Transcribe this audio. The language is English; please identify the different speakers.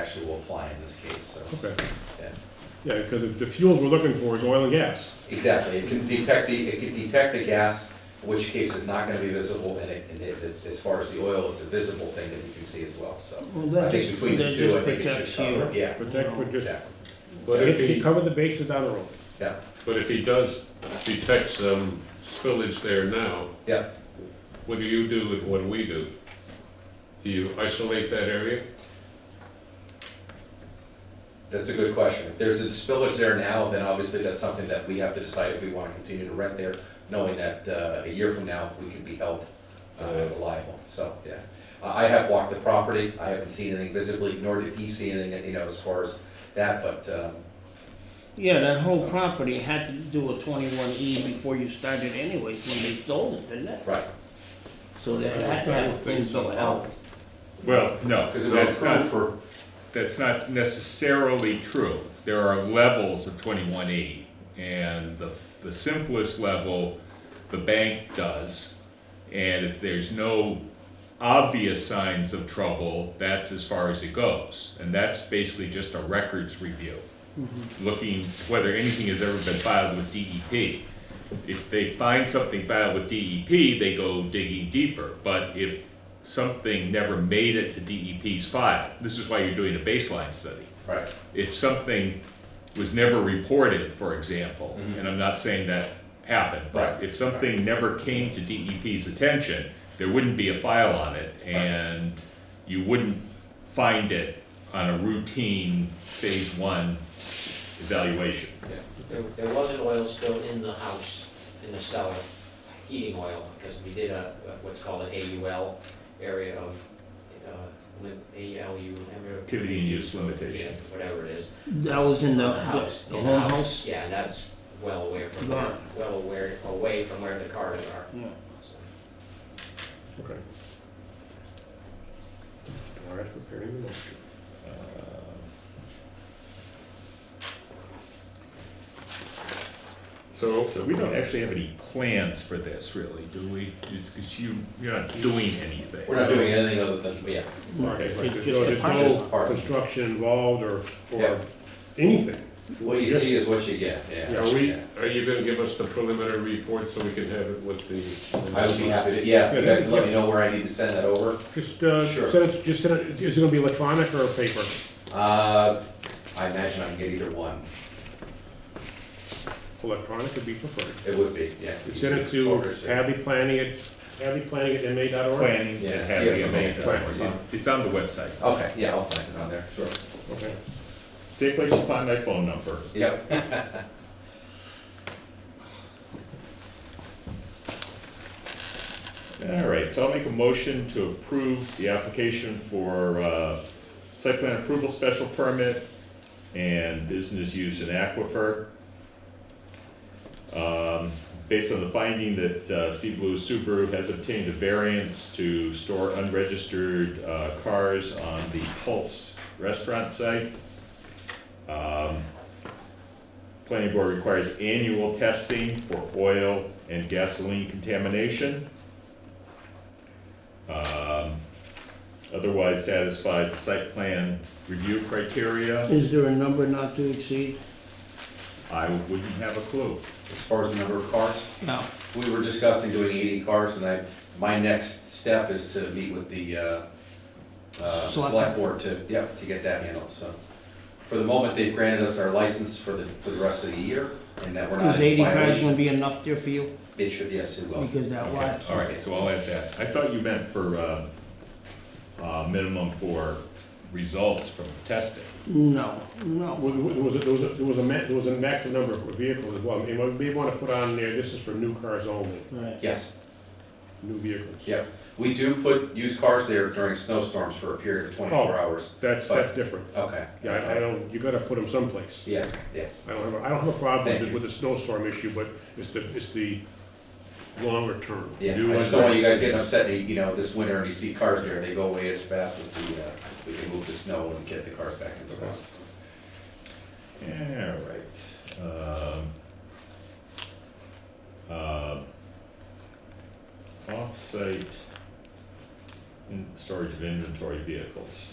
Speaker 1: actually will apply in this case, so.
Speaker 2: Okay,
Speaker 1: yeah.
Speaker 2: yeah, because the fuels we're looking for is oil and gas.
Speaker 1: Exactly, it can detect the, it can detect the gas, in which case it's not gonna be visible, and it, and it, it- as far as the oil, it's a visible thing that you can see as well, so.
Speaker 3: Well,
Speaker 1: I
Speaker 3: that
Speaker 1: think
Speaker 3: just,
Speaker 1: between the
Speaker 3: that
Speaker 1: two, I
Speaker 3: just
Speaker 1: think it
Speaker 3: protects
Speaker 1: should cover,
Speaker 3: you.
Speaker 1: yeah,
Speaker 2: But that would just,
Speaker 1: exactly,
Speaker 4: But if
Speaker 2: you
Speaker 4: he,
Speaker 2: cover the bases down the road.
Speaker 1: yeah,
Speaker 4: but if he does detect some spillage there now,
Speaker 1: yeah.
Speaker 4: what do you do and what do we do? Do you isolate that area?
Speaker 1: That's a good question. If there's a spillage there now, then obviously that's something that we have to decide if we want to continue to rent there, knowing that uh, a year from now, we could be held uh, liable. So, yeah. I I have walked the property. I haven't seen anything visibly, nor did he see anything, you know, as far as that, but, um,
Speaker 3: Yeah, that whole property had to do a twenty-one E before you started anyways, when they sold it, didn't it?
Speaker 1: right.
Speaker 3: So they had to
Speaker 2: I
Speaker 3: have
Speaker 2: don't
Speaker 3: a
Speaker 2: think
Speaker 3: thing
Speaker 2: so.
Speaker 3: somehow.
Speaker 5: Well, no,
Speaker 1: Because it was
Speaker 5: that's not,
Speaker 1: approved for,
Speaker 5: that's not necessarily true. There are levels of twenty-one E, and the, the simplest level, the bank does. And if there's no obvious signs of trouble, that's as far as it goes. And that's basically just a records review,
Speaker 1: Mm-hmm.
Speaker 5: looking whether anything has ever been filed with E DEP. If they find something filed with DEP, they go digging deeper. But if something never made it to DEP's file, this is why you're doing a baseline study.
Speaker 1: right,
Speaker 5: If something was never reported, for example, and I'm not saying that happened, but
Speaker 1: Right.
Speaker 5: if something never came to DEP's attention, there wouldn't be a file on it and you wouldn't find it on a routine phase one evaluation.
Speaker 6: There, there was an oil spill in the house, in the cellar, heating oil, because we did a, what's called an AUL area of, uh, lim- ALU, remember?
Speaker 5: Activity and use limitation.
Speaker 6: Yeah, Whatever it is.
Speaker 3: That was in the,
Speaker 6: On house,
Speaker 3: the
Speaker 6: in
Speaker 3: whole house?
Speaker 6: Yeah, and that's well away from,
Speaker 3: Gone.
Speaker 6: well aware, away from where the cars are.
Speaker 3: Yeah.
Speaker 6: so.
Speaker 2: Okay. All right, preparing the motion.
Speaker 4: So,
Speaker 5: So we don't actually have any plans for this really, do we? It's because you, you're not doing anything.
Speaker 1: we're not doing anything other than, yeah,
Speaker 2: All right,
Speaker 3: It's
Speaker 2: but
Speaker 3: just a
Speaker 2: there's no,
Speaker 3: part.
Speaker 2: there's
Speaker 1: Just a
Speaker 2: no
Speaker 1: part.
Speaker 2: construction involved or,
Speaker 1: Yeah.
Speaker 2: or anything.
Speaker 1: what you
Speaker 2: Yes.
Speaker 1: see is what you get, yeah.
Speaker 4: are we,
Speaker 1: yeah.
Speaker 4: are you gonna give us the preliminary report so we can have it with the?
Speaker 1: I would be happy to, yeah, if you guys can let me know where I need to send that over.
Speaker 2: Just, uh,
Speaker 1: Sure.
Speaker 2: send it, just send it, is it gonna be electronic or paper?
Speaker 1: Uh, I imagine I can get either one.
Speaker 2: Electronic would be preferred.
Speaker 1: It would be, yeah.
Speaker 2: Send it to Hadley Planning at, Hadley Planning at MA.org.
Speaker 5: Planning
Speaker 1: Yeah.
Speaker 5: to have the
Speaker 1: Yeah.
Speaker 5: event.
Speaker 1: Right.
Speaker 5: It's on the website.
Speaker 1: Okay, yeah, I'll find it on there, sure.
Speaker 2: Okay.
Speaker 5: Same place to find my phone number.
Speaker 1: Yep,
Speaker 5: All right, so I'll make a motion to approve the application for uh, site plan approval special permit and business use in aquifer. Um, Based on the finding that uh, Steve Lewis Subaru has obtained a variance to store unregistered uh, cars on the Pulse Restaurant site. Um, Planning board requires annual testing for oil and gasoline contamination. Um, Otherwise satisfies the site plan review criteria.
Speaker 3: Is there a number not to exceed?
Speaker 5: I wouldn't have a clue.
Speaker 1: as far as the number of cars,
Speaker 3: No.
Speaker 1: we were discussing doing eighty cars, and I, my next step is to meet with the, uh, uh,
Speaker 3: Select-
Speaker 1: select board to, yep, to get that handled, so. For the moment, they've granted us our license for the, for the rest of the year, and that we're not
Speaker 3: Is
Speaker 1: in
Speaker 3: eighty cars
Speaker 1: violation.
Speaker 3: gonna be enough there for you?
Speaker 1: It should, yes, it will.
Speaker 3: Because that
Speaker 5: Okay,
Speaker 3: lot,
Speaker 5: All right, so I'll add that. I thought you meant for, uh, uh, minimum for results from testing.
Speaker 3: no, no.
Speaker 2: Well, There was, a- there was, a- there was a ma, there was a maximum number of vehicles as well. And what we want to put on there, this is for new cars only,
Speaker 3: Right.
Speaker 1: Yes,
Speaker 2: new vehicles.
Speaker 1: yep. We do put used cars there during snowstorms for a period of twenty-four
Speaker 2: Oh,
Speaker 1: hours.
Speaker 2: That's, that's different.
Speaker 1: Okay.
Speaker 2: Yeah, I- I don't, you gotta put them someplace.
Speaker 1: Yeah, yes,
Speaker 2: I don't have, a- I don't have a problem
Speaker 1: Thank
Speaker 2: with,
Speaker 1: you.
Speaker 2: the- with the snowstorm issue, but it's the, it's the longer term.
Speaker 1: yeah.
Speaker 5: Do
Speaker 1: I just
Speaker 5: what-
Speaker 1: don't want you guys getting upset, that, you know, this winter and you see cars there, they go away as fast as the, uh, we can move the snow and get the cars back into the house.
Speaker 5: Yeah, all right. Um, um, Off-site in- storage of inventory vehicles.